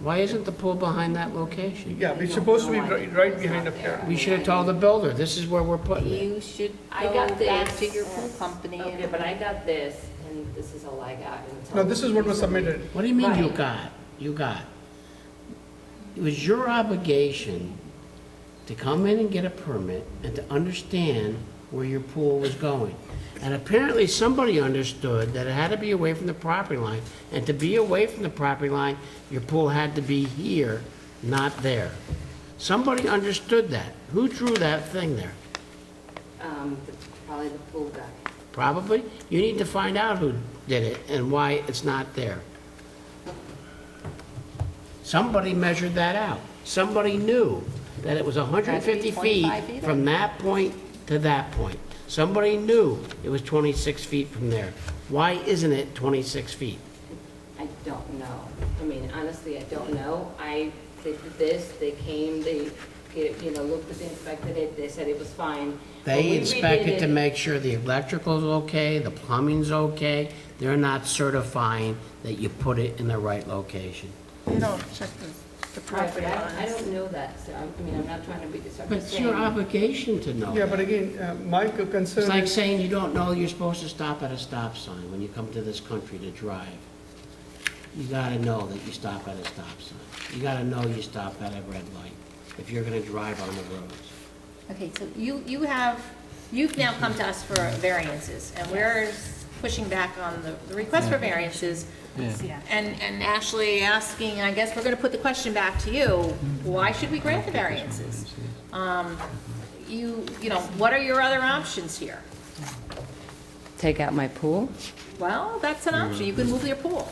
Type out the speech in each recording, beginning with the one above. Why isn't the pool behind that location? Yeah, it's supposed to be right, right behind up there. We should have told the builder, this is where we're putting it. You should I go got back this. to your pool company. Okay, but I got this, and this is all I got. and it's No, all- this is what was submitted. What do you mean you Right. got? You got? It was your obligation to come in and get a permit and to understand where your pool was going. And apparently, somebody understood that it had to be away from the property line. And to be away from the property line, your pool had to be here, not there. Somebody understood that. Who drew that thing there? Um, the- probably the pool guy. Probably. You need to find out who did it and why it's not there. Somebody measured that out. Somebody knew that it was 150 3.5 feet either. from that point to that point. Somebody knew it was 26 feet from there. Why isn't it 26 feet? I don't know. I mean, honestly, I don't know. I, they did this, they came, they, get- you know, looked at it, inspected it, they said it was fine. When we They redid inspected to it- make sure the electrical's okay, the plumbing's okay. They're not certifying that you put it in the right location. You don't check the, the Right, but property I, I lines. don't know that, so, I'm- I mean, I'm not trying to be, so I'm But just it's saying. your obligation to know Yeah, that. but again, uh, my co- It's concern like is, saying you don't know you're supposed to stop at a stop sign when you come to this country to drive. You gotta know that you stop at a stop sign. You gotta know you stop at a red light if you're gonna drive on the roads. Okay, so you, you have, you've now come to us for variances, and we're pushing back on the, the request for variances. And, and Ashley asking, I guess we're gonna put the question back to you, why should we grant the variances? Um, you, you know, what are your other options here? Take out my pool? Well, that's an option, you can move your pool.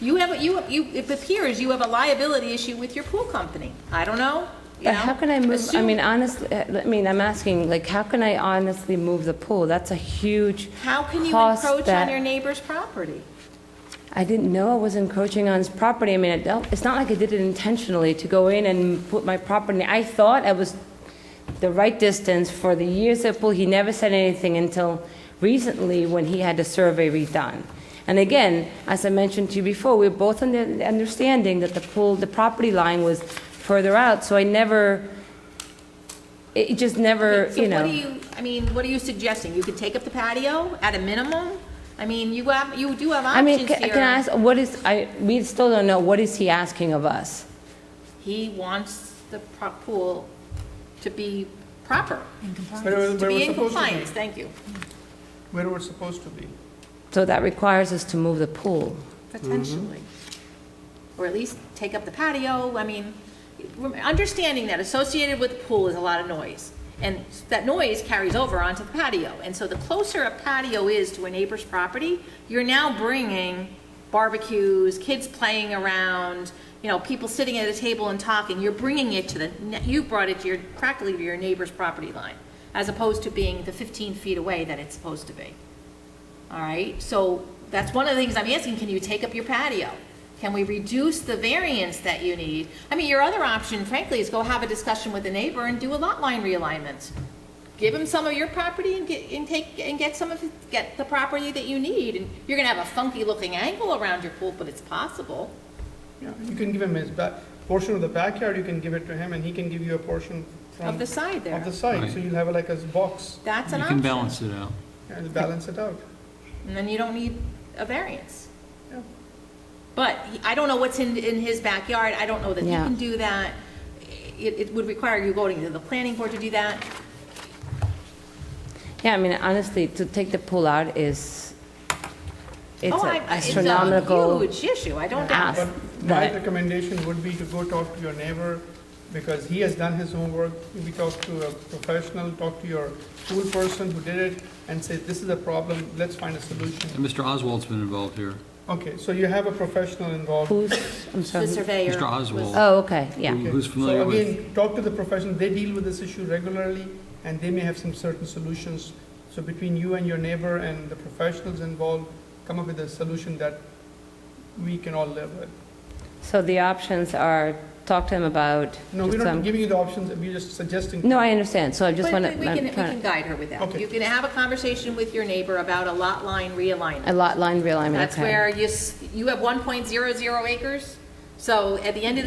You have, a- you, you, it appears you have a liability issue with your pool company, I don't know, you But know? how can I move, I Assume- mean, honestly, I mean, I'm asking, like, how can I honestly move the pool? That's a huge How can you cost encroach on that- your neighbor's property? I didn't know I was encroaching on his property. I mean, I don't, it's not like I did it intentionally to go in and put my property. I thought I was the right distance for the years at pool. He never said anything until recently when he had the survey redone. And again, as I mentioned to you before, we were both on the understanding that the pool, the property line was further out, so I never, it it just never, So you know. what do you, I mean, what are you suggesting? You could take up the patio at a minimum? I mean, you have, you do have I mean, options ca- can I here. ask, what is, I, we still don't know, what is he asking of us? He wants the pro- pool to be proper, where it was to where it be was in supposed to compliance, be, thank you. where it was supposed to be. So that requires us to move the pool. Potentially. Or at least take up the patio, I mean, rem- understanding that associated with the pool is a lot of noise. And that noise carries over onto the patio. And so the closer a patio is to a neighbor's property, you're now bringing barbecues, kids playing around, you know, people sitting at a table and talking. You're bringing it to the, ne- you brought it to your, practically to your neighbor's property line, as opposed to being the 15 feet away that it's supposed to be. All right, so that's one of the things I'm asking, can you take up your patio? Can we reduce the variance that you need? I mean, your other option frankly is go have a discussion with the neighbor and do a lot line realignment. Give him some of your property and get, and take, and get some of, his- get the property that you need. And you're gonna have a funky looking angle around your pool, but it's possible. Yeah, You can give him his back, portion of the backyard, you can give it to him, and he can give you a portion from. Of the side there. Of the side, so Right. you'll have like a box, That's an You can option. balance it out. and it'll balance it out. And then you don't need a variance. Yeah. But he- I don't know what's in, in his backyard, I don't know that he Yeah. can do that. It, it would require you going to the planning board to do that. Yeah, I mean, honestly, to take the pool out is, it's Oh, an I- astronomical It's a huge issue, I don't ask doubt But my that, recommendation would be to go talk to your neighbor, because he has done his homework. We talk to a professional, talk to your pool person who did it, and say, this is a problem, let's find a solution. And Mr. Oswald's been involved here. Okay, so you have a professional involved. who's, I'm the sorry. who- surveyor. Mr. was- Oswald. Oh, okay, yeah. Mm-hmm. who- Who's familiar So with, again, talk to the professional, they deal with this issue regularly, and they may have some certain solutions. So between you and your neighbor and the professionals involved, come up with a solution that we can all live with. So the options are, talk to him about. No, we're some- not giving you the options, we're just suggesting. um, No, I understand, so I just But want we we can, we can to, guide her with that. Okay. You can have a conversation with your neighbor about a lot line realignment. a lot line realignment, okay. That's where you, s- you have 1.00 acres, So at the end of the